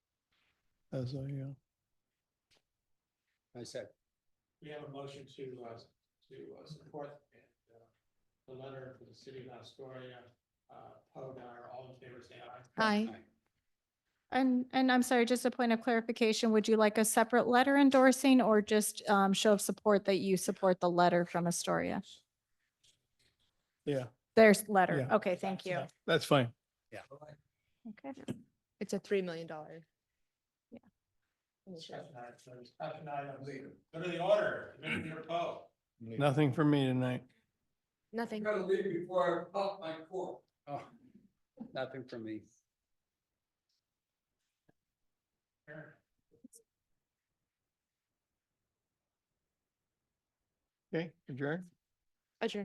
as a, uh, I said, We have a motion to, uh, to uh, support and, uh, the letter for the city of Astoria, uh, Podar, all in favor, say aye. Aye. And, and I'm sorry, just a point of clarification, would you like a separate letter endorsing or just um, show of support that you support the letter from Astoria? yeah, There's letter. Yeah. Okay, thank you. yeah, that's fine. Okay. It's a three million dollar. Yeah. Discussion item, discussion items. Go to the order, Commissioner Poe. Nothing for me tonight. Nothing. gotta leave before I pop my cork. Oh, nothing for me. Okay, adjourn.